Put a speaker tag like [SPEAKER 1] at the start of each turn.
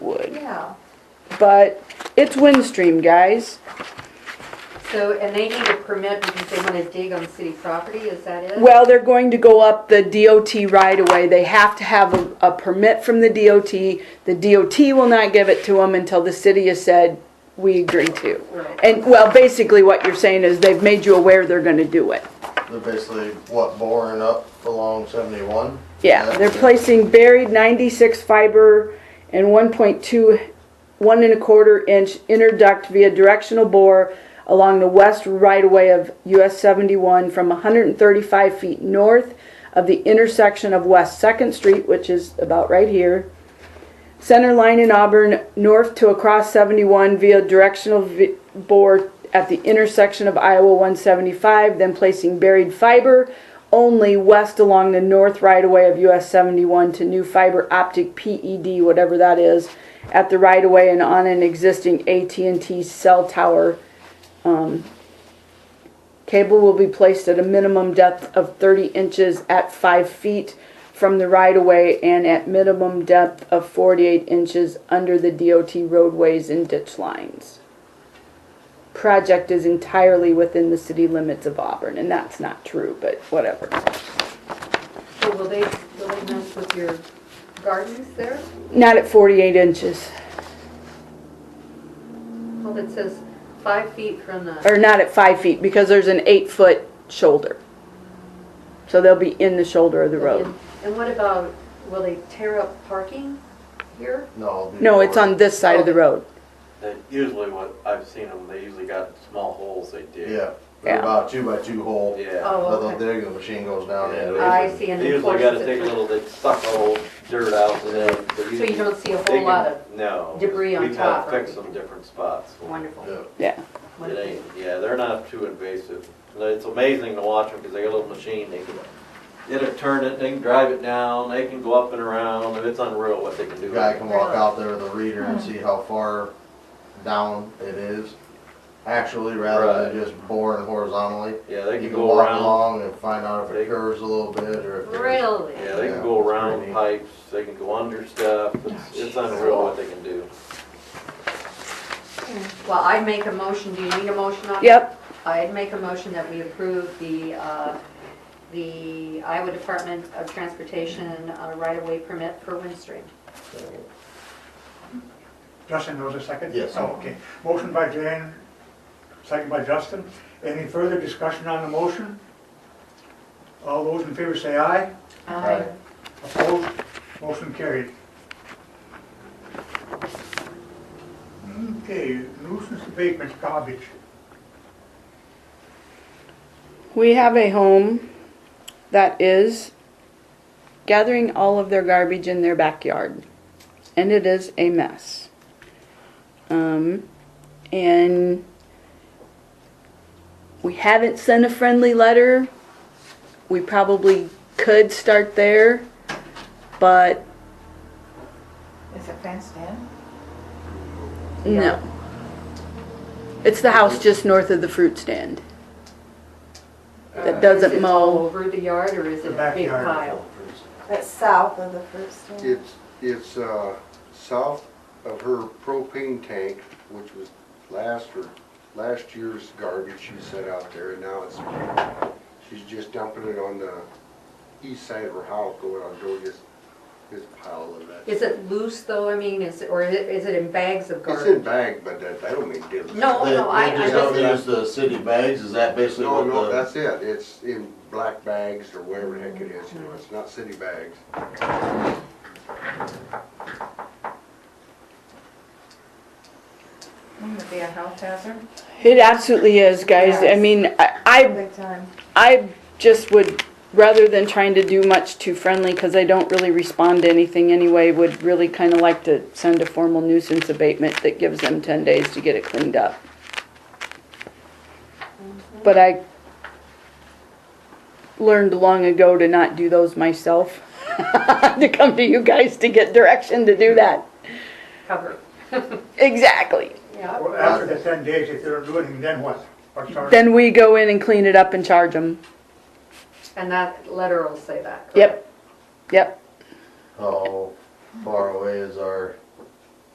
[SPEAKER 1] Yeah,
[SPEAKER 2] but it's Windstream, guys.
[SPEAKER 1] so, and they need a permit because they want to dig on city property, is that it?
[SPEAKER 2] Well, they're going to go up the DOT right away. They have to have a, a permit from the DOT. The DOT will not give it to them until the city has said, we agree to.
[SPEAKER 1] Right.
[SPEAKER 2] And, well, basically what you're saying is they've made you aware they're gonna do it.
[SPEAKER 3] They're basically, what, boring up along seventy-one?
[SPEAKER 2] Yeah, they're placing buried ninety-six fiber and 1.2, one and a quarter inch inner duct via directional bore along the west right of way of US seventy-one from hundred and thirty-five feet north of the intersection of West Second Street, which is about right here. Center line in Auburn, north to across seventy-one via directional vi- bore at the intersection of Iowa one seventy-five, then placing buried fiber only west along the north right-of-way of US seventy-one to new fiber optic PED, whatever that is, at the right-of-way and on an existing AT&T cell tower. Um, Cable will be placed at a minimum depth of thirty inches at five feet from the right-of-way and at minimum depth of forty-eight inches under the DOT roadways and ditch lines. Project is entirely within the city limits of Auburn, and that's not true, but whatever.
[SPEAKER 1] So will they, will they mess with your gardens there?
[SPEAKER 2] Not at forty-eight inches,
[SPEAKER 1] Well, it says five feet from the,
[SPEAKER 2] or not at five feet, because there's an eight-foot shoulder. So they'll be in the shoulder of the road.
[SPEAKER 1] and what about, will they tear up parking here?
[SPEAKER 3] No. it'd be
[SPEAKER 2] No, it's
[SPEAKER 3] boring.
[SPEAKER 2] on this side of the road.
[SPEAKER 4] That usually what I've seen them, they usually got small holes they dig.
[SPEAKER 3] Yeah,
[SPEAKER 2] Yeah.
[SPEAKER 3] they're about two by two hole.
[SPEAKER 4] Yeah.
[SPEAKER 1] Oh,
[SPEAKER 3] But
[SPEAKER 1] okay.
[SPEAKER 3] the digging machine goes down
[SPEAKER 4] Yeah,
[SPEAKER 3] into
[SPEAKER 4] they
[SPEAKER 3] it.
[SPEAKER 1] I
[SPEAKER 4] usually-
[SPEAKER 1] see, and
[SPEAKER 4] They
[SPEAKER 1] then
[SPEAKER 4] usually
[SPEAKER 1] forces
[SPEAKER 4] gotta
[SPEAKER 1] it
[SPEAKER 4] take a
[SPEAKER 1] through.
[SPEAKER 4] little, they suck the whole dirt out and then. but
[SPEAKER 1] So you don't see a
[SPEAKER 4] they
[SPEAKER 1] whole
[SPEAKER 4] can-
[SPEAKER 1] lot of,
[SPEAKER 4] No.
[SPEAKER 1] debris on
[SPEAKER 4] We gotta
[SPEAKER 1] top or
[SPEAKER 4] fix
[SPEAKER 1] anything.
[SPEAKER 4] some different spots.
[SPEAKER 1] wonderful,
[SPEAKER 3] Yeah.
[SPEAKER 2] Yeah,
[SPEAKER 4] It
[SPEAKER 1] wonderful.
[SPEAKER 4] ain't, yeah, they're not too invasive. It's amazing to watch them because they got a little machine, they can, it'll turn it, they can drive it down, they can go up and around, and it's unreal what they can
[SPEAKER 3] The
[SPEAKER 4] do.
[SPEAKER 3] guy can walk out there with a reader and see how far down it is, actually, rather than just boring horizontally.
[SPEAKER 4] Yeah, they
[SPEAKER 3] You
[SPEAKER 4] can
[SPEAKER 3] can
[SPEAKER 4] go
[SPEAKER 3] walk
[SPEAKER 4] around,
[SPEAKER 3] along and find out if
[SPEAKER 4] They-
[SPEAKER 3] it curves a little bit or if it's
[SPEAKER 1] Really?
[SPEAKER 4] yeah, they can
[SPEAKER 3] Yeah,
[SPEAKER 4] go
[SPEAKER 3] it's
[SPEAKER 4] around
[SPEAKER 3] pretty neat.
[SPEAKER 4] pipes, they can go under stuff, it's, it's unreal what they can do.
[SPEAKER 1] Well, I'd make a motion, do you need a motion on it?
[SPEAKER 2] yep,
[SPEAKER 1] I'd make a motion that we approve the, uh, the Iowa Department of Transportation uh, right-of-way permit for Windstream.
[SPEAKER 5] Justin, there was a second?
[SPEAKER 3] Yes.
[SPEAKER 5] Oh, okay. Motion by Jan, second by Justin. Any further discussion on the motion? All those in favor say aye.
[SPEAKER 3] Aye.
[SPEAKER 5] Opposed? Motion carried. Okay, nuisance abatement garbage.
[SPEAKER 2] we have a home that is gathering all of their garbage in their backyard, and it is a mess. Um, and we haven't sent a friendly letter. We probably could start there, but
[SPEAKER 6] Is it fenced in?
[SPEAKER 2] no. It's the house just north of the fruit stand. That
[SPEAKER 1] Is
[SPEAKER 2] doesn't
[SPEAKER 1] it all
[SPEAKER 2] mow.
[SPEAKER 1] over the yard, or is it
[SPEAKER 5] The
[SPEAKER 1] a big
[SPEAKER 5] backyard.
[SPEAKER 1] pile?
[SPEAKER 6] It's south of the fruit stand.
[SPEAKER 7] It's, it's uh, south of her propane tank, which was last or, last year's garbage she set out there, and now it's, she's just dumping it on the east side of her house, going on Dodia's, his pile of that.
[SPEAKER 1] Is it loose, though, I mean, is, or is it- is it in bags of
[SPEAKER 7] It's
[SPEAKER 1] garbage?
[SPEAKER 7] in bag, but that, I don't mean dilly.
[SPEAKER 1] No,
[SPEAKER 3] They-
[SPEAKER 1] Oh, no, I,
[SPEAKER 3] They
[SPEAKER 1] I
[SPEAKER 3] just don't
[SPEAKER 1] just,
[SPEAKER 3] use the city bags, is that basically
[SPEAKER 7] No,
[SPEAKER 3] what
[SPEAKER 7] no,
[SPEAKER 3] the?
[SPEAKER 7] that's it, it's in black bags or whatever the heck it is, you know, it's not city bags.
[SPEAKER 6] Wouldn't it be a health hazard?
[SPEAKER 2] It absolutely is, guys. I
[SPEAKER 6] Yes.
[SPEAKER 2] mean, I, I
[SPEAKER 6] Big time.
[SPEAKER 2] I just would, rather than trying to do much too friendly, because I don't really respond to anything anyway, would really kind of like to send a formal nuisance abatement that gives them ten days to get it cleaned up. But I learned long ago to not do those myself, to come to you guys to get direction to do that.
[SPEAKER 1] cover,
[SPEAKER 2] Exactly.
[SPEAKER 1] yeah.
[SPEAKER 5] Well, after the ten days, if they don't do anything, then what? What's our-
[SPEAKER 2] Then we go in and clean it up and charge them.
[SPEAKER 1] And that letter will say that. correct?
[SPEAKER 2] Yep, yep.
[SPEAKER 3] How far away is our